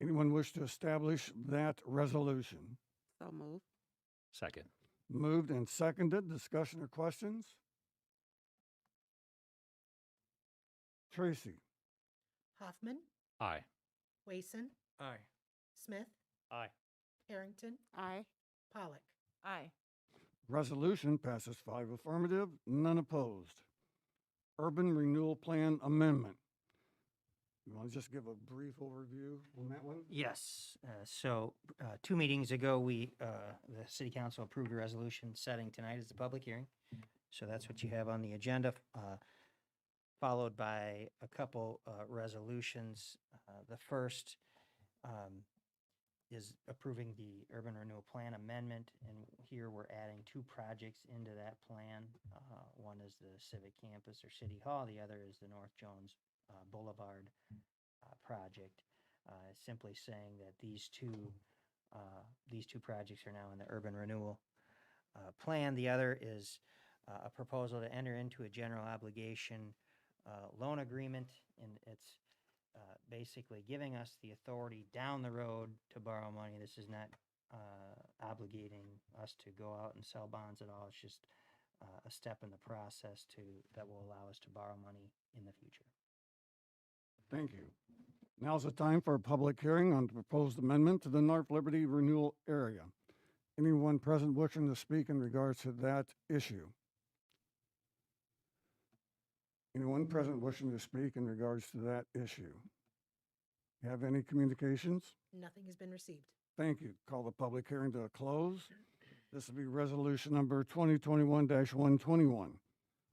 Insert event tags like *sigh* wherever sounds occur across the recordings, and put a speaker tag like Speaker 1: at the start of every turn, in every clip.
Speaker 1: Anyone wish to establish that resolution?
Speaker 2: So moved.
Speaker 3: Second.
Speaker 1: Moved and seconded. Discussion or questions? Tracy?
Speaker 4: Hoffman,
Speaker 3: Aye.
Speaker 4: Wason,
Speaker 5: Aye.
Speaker 4: Smith,
Speaker 3: Aye.
Speaker 4: Harrington,
Speaker 2: Aye.
Speaker 4: Pollock.
Speaker 2: Aye.
Speaker 1: Resolution passes five affirmative, none opposed. Urban Renewal Plan Amendment. You want to just give a brief overview on that one?
Speaker 6: Yes, uh, so, uh, two meetings ago, we, uh, the city council approved a resolution setting tonight as the public hearing. So that's what you have on the agenda, uh, followed by a couple, uh, resolutions. Uh, the first, um, is approving the urban renewal plan amendment, and here we're adding two projects into that plan. Uh, one is the civic campus or city hall, the other is the North Jones uh, Boulevard, uh, project uh, simply saying that these two, uh, these two projects are now in the urban renewal uh, plan. The other is uh, a proposal to enter into a general obligation uh, loan agreement, and it's uh, basically giving us the authority down the road to borrow money. This is not uh, obligating us to go out and sell bonds at all. It's just uh, a step in the process to, that will allow us to borrow money in the future.
Speaker 1: Thank you. Now's the time for a public hearing on the proposed amendment to the North Liberty Renewal Area. Anyone present wishing to speak in regards to that issue? Anyone present wishing to speak in regards to that issue? Have any communications?
Speaker 4: Nothing has been received.
Speaker 1: Thank you. Call the public hearing to a close. This will be resolution number 2021-121,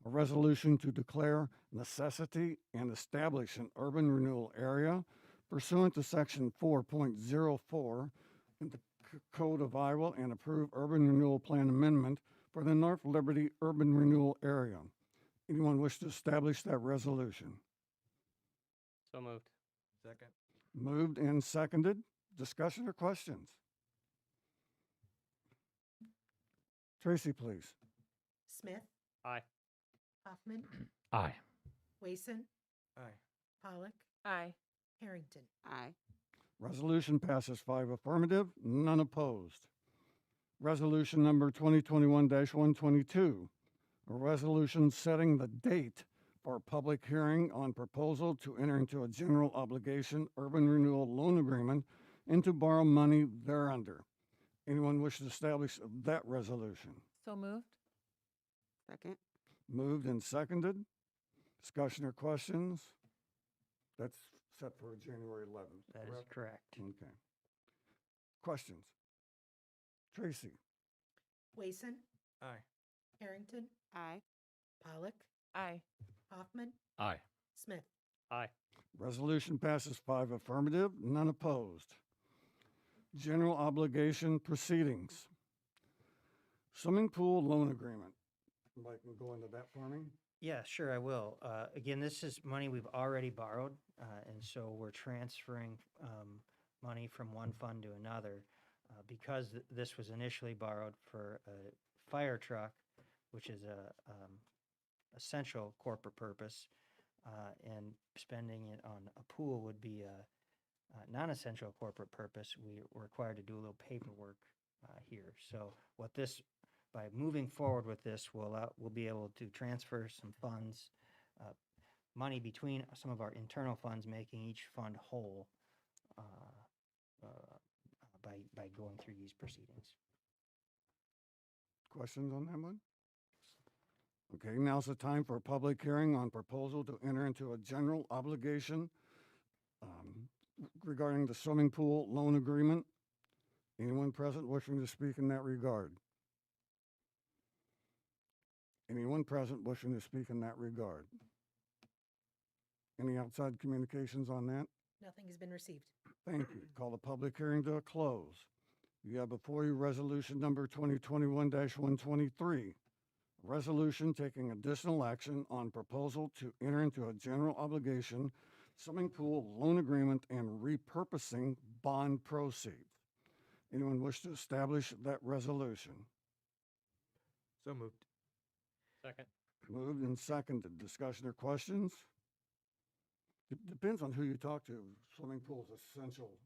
Speaker 1: a resolution to declare necessity and establish an urban renewal area pursuant to section 4.04 in the C- Code of Iowa and approve urban renewal plan amendment for the North Liberty urban renewal area. Anyone wish to establish that resolution?
Speaker 3: So moved.
Speaker 5: Second.
Speaker 1: Moved and seconded. Discussion or questions? Tracy, please.
Speaker 4: Smith.
Speaker 3: Aye.
Speaker 5: *clears throat*
Speaker 4: Hoffman,
Speaker 3: Aye.
Speaker 4: Wason,
Speaker 5: Aye.
Speaker 4: Pollock,
Speaker 2: Aye.
Speaker 4: Harrington.
Speaker 2: Aye.
Speaker 1: Resolution passes five affirmative, none opposed. Resolution number 2021-122, a resolution setting the date for a public hearing on proposal to enter into a general obligation urban renewal loan agreement and to borrow money thereunder. Anyone wish to establish that resolution?
Speaker 2: So moved. Second.
Speaker 1: Moved and seconded. Discussion or questions? That's set for January 11th.
Speaker 6: That is
Speaker 1: correct?
Speaker 6: correct.
Speaker 1: Okay. Questions? Tracy?
Speaker 4: Wason,
Speaker 5: Aye.
Speaker 4: Harrington,
Speaker 2: Aye.
Speaker 4: Pollock,
Speaker 2: Aye.
Speaker 4: Hoffman,
Speaker 3: Aye.
Speaker 4: Smith.
Speaker 3: Aye.
Speaker 1: Resolution passes five affirmative, none opposed. General obligation proceedings. Swimming pool loan agreement. Mike can go into that for me?
Speaker 6: Yeah, sure, I will. Uh, Again, this is money we've already borrowed, uh, and so we're transferring um, money from one fund to another. Uh, Because th- this was initially borrowed for a fire truck, which is a um, essential corporate purpose, uh, and spending it on a pool would be a uh, non-essential corporate purpose, we are required to do a little paperwork uh, here. So what this by moving forward with this, we'll, uh, we'll be able to transfer some funds, uh, money between some of our internal funds, making each fund whole, uh, uh, by, by going through these proceedings.
Speaker 1: Questions on that one? Okay, now's the time for a public hearing on proposal to enter into a general obligation um, regarding the swimming pool loan agreement. Anyone present wishing to speak in that regard? Anyone present wishing to speak in that regard? Any outside communications on that?
Speaker 4: Nothing has been received.
Speaker 1: Thank you. Call the public hearing to a close. You have before you resolution number 2021-123. Resolution taking additional action on proposal to enter into a general obligation swimming pool loan agreement and repurposing bond proceeds. Anyone wish to establish that resolution?
Speaker 5: So moved.
Speaker 3: Second.
Speaker 1: Moved and seconded. Discussion or questions? It Depends on who you talk to. Swimming pool's essential